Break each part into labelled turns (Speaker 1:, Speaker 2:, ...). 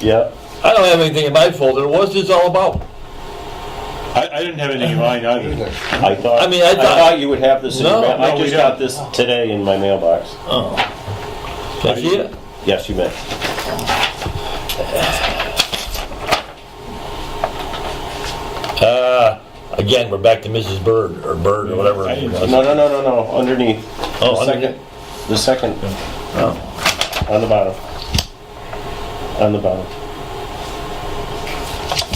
Speaker 1: Yep.
Speaker 2: I don't have anything in my folder. What's this all about?
Speaker 3: I, I didn't have anything in mind either.
Speaker 1: I thought.
Speaker 2: I mean, I thought-
Speaker 1: you would have this. in
Speaker 2: No,
Speaker 1: your mail. I
Speaker 3: no, we
Speaker 1: just got
Speaker 3: don't.
Speaker 1: this today in my mailbox.
Speaker 2: Oh. Can I see it?
Speaker 1: Yes, you may.
Speaker 2: Uh, again, we're back to Mrs. Bird, or Bird, or whatever.
Speaker 3: I didn't-
Speaker 1: No, no, no, no, no. Underneath.
Speaker 2: Oh,
Speaker 1: the second.
Speaker 2: underneath.
Speaker 1: The second. On the bottom. On the bottom.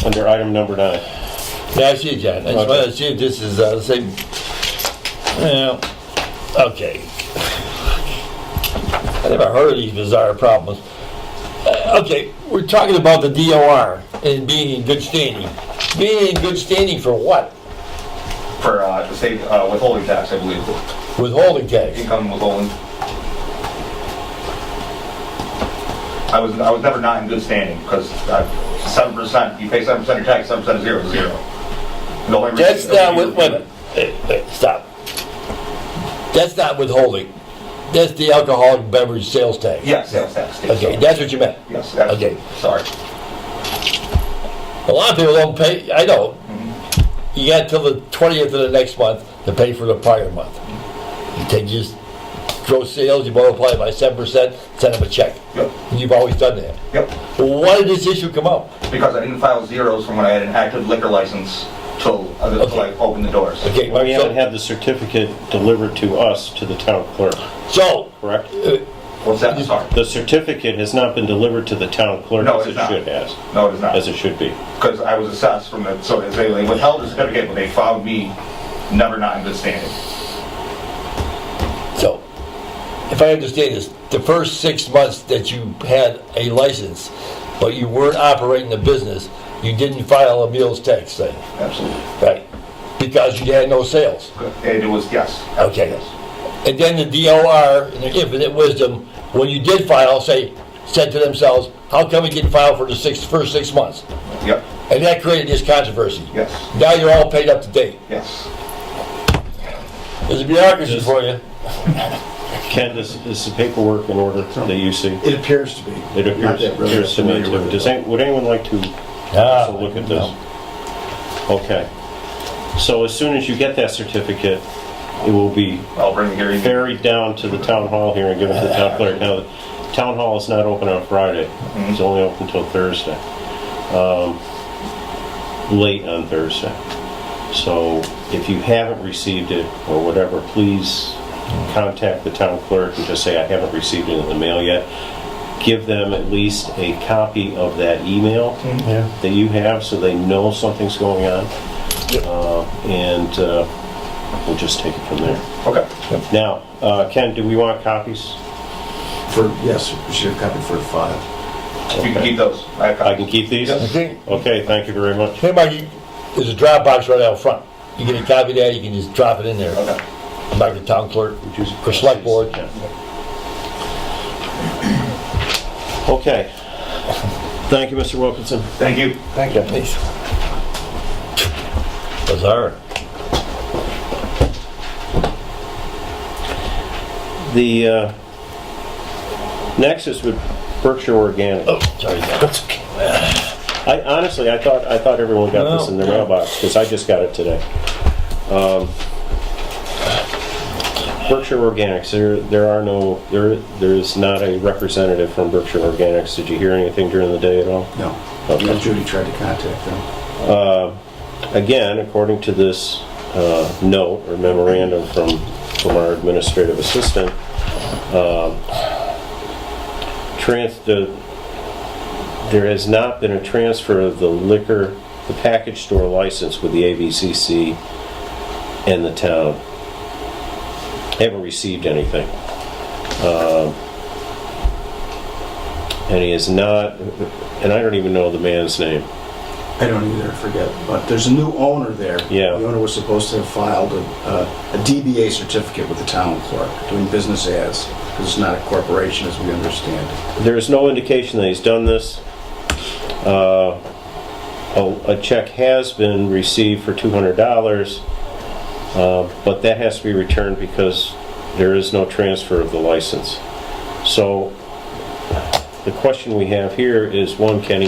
Speaker 1: Under item number nine.
Speaker 2: Yeah, I see it, John. I just wanted to see if this is uh, the same. Well, okay. I never heard of these bizarre problems. Uh, okay, we're talking about the DOR and being in good standing. Being in good standing for what?
Speaker 4: for uh, state uh, withholding tax, I believe,
Speaker 2: Withholding tax.
Speaker 4: income withholding. I was I was never not in good standing because seven percent you pay seven percent of your tax, seven percent is zero is zero. The only reason-
Speaker 2: That's not with, wait a minute. Hey, hey, Stop. That's not withholding. That's the alcoholic beverage sales tax.
Speaker 4: Yeah, sales tax. yes.
Speaker 2: Okay, that's what you meant.
Speaker 4: Yes. That's,
Speaker 2: Okay.
Speaker 4: Sorry.
Speaker 2: A lot of people don't pay, I don't. You got till the twentieth of the next month to pay for the prior month. You take just gross sales, you multiply it by seven percent, send them a check.
Speaker 4: Yep.
Speaker 2: You've always done that.
Speaker 4: Yep.
Speaker 2: Why did this issue come up?
Speaker 4: Because I didn't file zeros from when I had an active liquor license till uh, until I
Speaker 2: Okay.
Speaker 4: opened the doors.
Speaker 2: Okay,
Speaker 1: We haven't
Speaker 2: so,
Speaker 1: had the certificate delivered to us, to the town clerk,
Speaker 2: so, uh,
Speaker 1: correct?
Speaker 4: What's that? Sorry.
Speaker 1: The certificate has not been delivered to the town clerk
Speaker 4: No,
Speaker 1: as
Speaker 4: it's
Speaker 1: it
Speaker 4: not.
Speaker 1: should has,
Speaker 4: No, it is not.
Speaker 1: as it should be.
Speaker 4: because I was assessed from the, so they they withheld the certificate, but they found me never not in good standing.
Speaker 2: so, if I understand this, the first six months that you had a license, but you weren't operating the business, you didn't file a meals tax thing,
Speaker 4: Absolutely.
Speaker 2: right? Because you had no sales.
Speaker 4: And it was, yes.
Speaker 2: Okay.
Speaker 4: Yes.
Speaker 2: And then the DOR, in their infinite wisdom, when you did file, say, said to themselves, how come we didn't file for the six, first six months?
Speaker 4: Yep,
Speaker 2: And that created this controversy.
Speaker 4: yes,
Speaker 2: Now you're all paid up to date.
Speaker 4: yes.
Speaker 2: There's a bureaucracy for you.
Speaker 1: Ken, this, this is paperwork in order that you see.
Speaker 5: It appears to be.
Speaker 1: It
Speaker 5: Not
Speaker 1: appears,
Speaker 5: that really
Speaker 1: appears to me
Speaker 5: familiar
Speaker 1: too.
Speaker 5: with
Speaker 1: Does,
Speaker 5: it.
Speaker 1: any- would anyone like to
Speaker 2: Ah,
Speaker 1: also look at this? Okay. So as soon as you get that certificate, it will be
Speaker 4: I'll bring the hearing.
Speaker 1: ferried down to the town hall here and given to the town clerk. Now, the town hall is not open on Friday. It's only open till Thursday. Um, Late on Thursday. So if you haven't received it or whatever, please contact the town clerk and just say, I haven't received it in the mail yet. Give them at least a copy of that email
Speaker 5: Yeah.
Speaker 1: that you have so they know something's going on. Uh, And uh, we'll just take it from there.
Speaker 4: Okay.
Speaker 1: Now, uh, Ken, do we want copies?
Speaker 5: For, yes, we should have copied for the file.
Speaker 4: If you can keep those. I have
Speaker 1: I
Speaker 4: copies.
Speaker 1: can keep these?
Speaker 2: I think,
Speaker 1: Okay, thank you very much.
Speaker 2: hey, Mike, you- there's a drop box right out front. You get a copy of that, you can just drop it in there.
Speaker 4: Okay.
Speaker 2: Like the town clerk,
Speaker 1: Would you-
Speaker 2: or select board.
Speaker 1: Okay. Thank you, Mr. Wilkinson.
Speaker 4: Thank you.
Speaker 5: Thank you.
Speaker 2: Bizarre.
Speaker 1: The uh, next is with Berkshire Organic.
Speaker 2: Oh, sorry. That's okay.
Speaker 1: I honestly, I thought, I thought everyone got this in their
Speaker 2: No.
Speaker 1: mailbox, because I just got it today. Um, Berkshire Organics, there, there are no, there, there is not a representative from Berkshire Organics. Did you hear anything during the day at all?
Speaker 5: No.
Speaker 1: Okay.
Speaker 5: Judy tried to contact them.
Speaker 1: Again, according to this uh, note or memorandum from, from our administrative assistant, um, trans, the, there has not been a transfer of the liquor, the package store license with the ABCC and the town. Haven't received anything. Um, And he is not, and I don't even know the man's name.
Speaker 5: I don't either, I forget. But there's a new owner there.
Speaker 1: Yeah.
Speaker 5: The owner was supposed to have filed a, a- a DBA certificate with the town clerk, doing business as, because it's not a corporation as we understand it.
Speaker 1: There is no indication that he's done this. Uh, A a check has been received for $200, uh, but that has to be returned because there is no transfer of the license. So the question we have here is, one, Kenny,